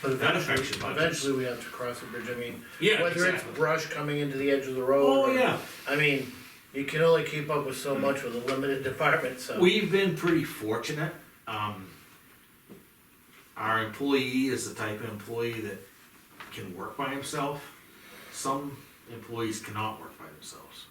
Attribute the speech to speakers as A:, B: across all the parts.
A: But
B: That
A: eventually-
B: affects your budgets.
A: Eventually, we have to cross the bridge, I mean,
B: Yeah,
A: whether it's
B: exactly.
A: brush coming into the edge of the road.
B: Oh,
A: or-
B: yeah. Mm.
A: I mean, you can only keep up with so much with a limited department, so.
B: We've been pretty fortunate. Um, our employee is the type of employee that can work by himself. Some employees cannot work by themselves.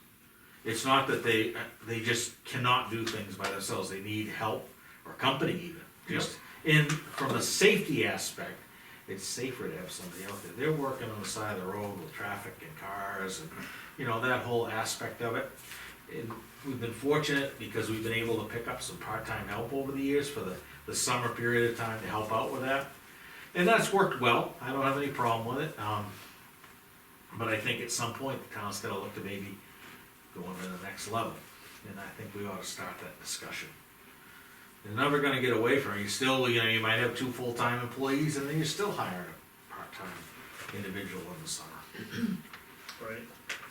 B: It's not that they they just cannot do things by themselves. They need help or company even. Just in from a safety aspect, it's safer to have somebody out there. They're working on the side of the road with traffic and cars and you know that whole aspect of it. And we've been fortunate because we've been able to pick up some part-time help over the years for the, the summer period of time to help out with that. And that's worked well, I don't have any problem with it, um, but I think at some point, the town's gonna look to maybe going to the next level, and I think we ought to start that discussion. You're never gonna get away from it, you still, you know, you might have two full-time employees, and then you're still hiring a part-time individual in the summer,
A: Right,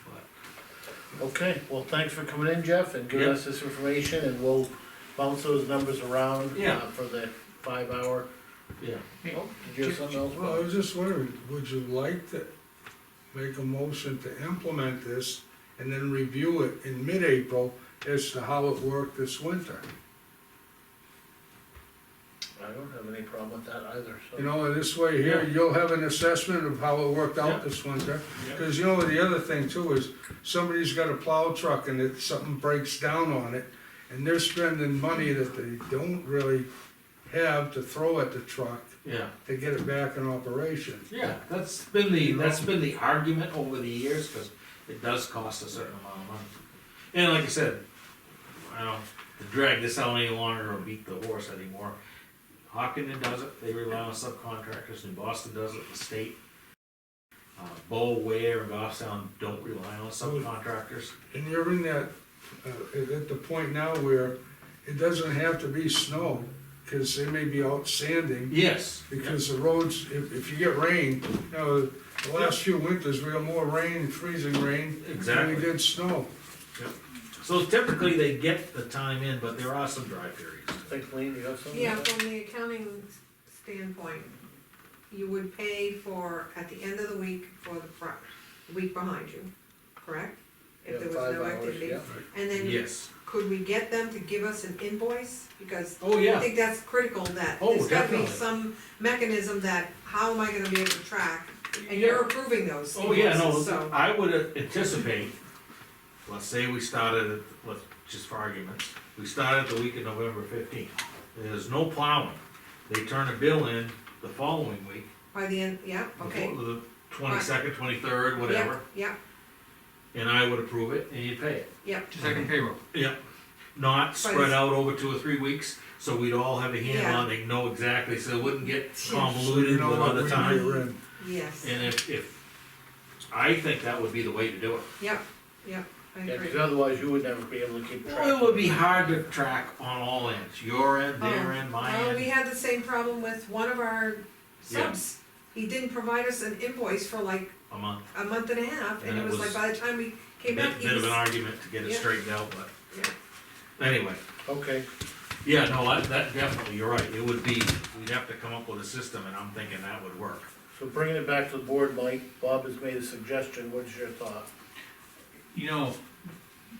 B: but.
A: okay, well, thanks for coming in, Jeff, and giving
B: Yeah.
A: us this information, and we'll bounce those numbers around. uh,
B: Yeah.
A: For the five hour.
B: Yeah.
A: Oh, Did you have something else?
C: Well, I
A: Bob?
C: was just wondering, would you like to make a motion to implement this and then review it in mid-April as to how it worked this winter?
A: I don't have any problem with that either, so.
C: uh, You know, in this way here,
B: Yeah.
C: you'll have an assessment of how it worked out
B: Yeah.
C: this winter.
B: Yeah.
C: Cause you know, the other thing too is, somebody's got a plow truck and it, something breaks down on it, and they're spending money that they don't really have to throw at the truck
B: Yeah.
C: to get it back in operation.
B: Yeah, that's been the, that's been the argument over the years, cause it does cost a certain amount of money. And like I said, I don't, to drag this out any longer or beat the horse anymore. Hockenden does it, they rely on subcontractors, and Boston does it, the state. Uh, Bow, Ware, and Goffstown don't rely on subcontractors.
C: And you're in that, uh, at the point now where it doesn't have to be snow, cause they may be out sanding,
B: Yes.
C: because the roads, if, if you get rain, you know, the last few winters, we had more rain, freezing rain, than we
B: Exactly.
C: did snow.
B: So typically they get the time in, but there are some dry periods.
A: I think, Lean, you have something?
D: Yeah, from the accounting standpoint, you would pay for, at the end of the week, for the fri- the week behind you, correct? If
A: Yeah,
D: there was
A: five
D: no
A: hours,
D: activity.
A: yeah.
D: And then,
B: Yes.
D: could we get them to give us an invoice? Because
B: Oh,
D: I
B: yeah.
D: think that's critical, that
B: Oh,
D: there's gotta be
B: definitely.
D: some mechanism that, how am I gonna be able to track? And you're approving those
B: Oh, yeah,
D: invoices,
B: no,
D: so,
B: I would anticipate, let's say we started, at- let's, just for arguments, we started the week of November fifteenth. There's no plowing. They turn a bill in the following week,
D: by the end, yeah,
B: the
D: okay.
B: fo- the twenty-second, twenty-third, whatever,
D: Yeah,
B: and I would approve it and you pay it.
D: yeah,
E: Second payroll.
B: Yeah, Not spread
D: it's-
B: out over two or three weeks, so we'd all have a handle
D: Yeah.
B: on, it, know exactly, so it wouldn't get
C: So you
B: convoluted
C: know
B: with
C: what
B: other
C: we
B: time.
C: were in.
D: yes,
B: And if, if, I think that would be the way to do it.
D: yeah, yeah, I
A: Yeah,
D: agree.
A: because otherwise you would never be able to keep track.
B: Well, it would be hard to track on all ends, your end, their
D: Oh,
B: end, my
D: Well, we
B: end.
D: had the same problem with one of our
B: Yeah.
D: subs. He didn't provide us an invoice for like
B: A month,
D: a month and a half, and it was like by the time we came back,
B: bit,
D: he
B: bit of
D: was.
B: an argument to get it
D: Yeah.
B: straightened out, but
D: Yeah.
B: anyway,
A: Okay,
B: yeah, no, I- that definitely, you're right, it would be, we'd have to come up with a system, and I'm thinking that would work.
A: so bringing it back to the board, Mike, Bob has made a suggestion, what's your thought?
E: You know,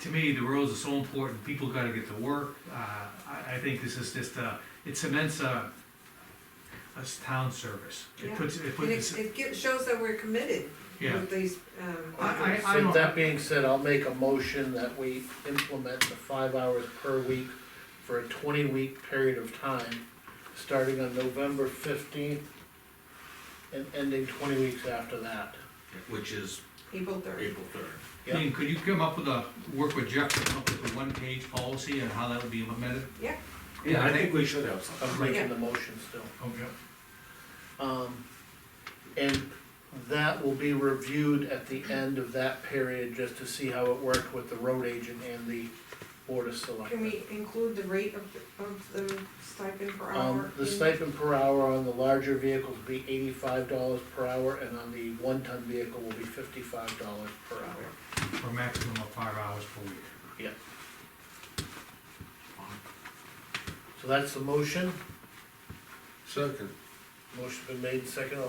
E: to me, the roads are so important, people gotta get to work. Uh, I, I think this is just a, it cements a, a s- town service.
D: Yeah.
E: It puts, it
D: And it,
E: puts,
D: it gi- shows that we're committed
E: yeah,
D: with these, um.
E: I- I-
A: So
E: don't-
A: that being said, I'll make a motion that we implement the five hours per week for a twenty-week period of time, starting on November fifteenth and ending twenty weeks after that.
B: Which is
D: April third.
B: April third.
A: Yeah.
F: Ian, could you come up with a, work with Jeff to come up with a one-page policy on how that would be implemented?
D: Yeah,
B: Yeah, I think we should have
A: I'm
B: something.
A: making the motion still.
E: okay.
A: Um, and that will be reviewed at the end of that period, just to see how it worked with the road agent and the board of
D: can
A: selectmen.
D: we include the rate of, the- of the stipend per hour?
A: Um, the
D: in-
A: stipend per hour on the larger vehicles will be eighty-five dollars per hour, and on the one-ton vehicle will be fifty-five dollars per hour.
F: For a maximum of five hours per week.
A: So that's the motion,
C: Second.
A: motion's been made, second, all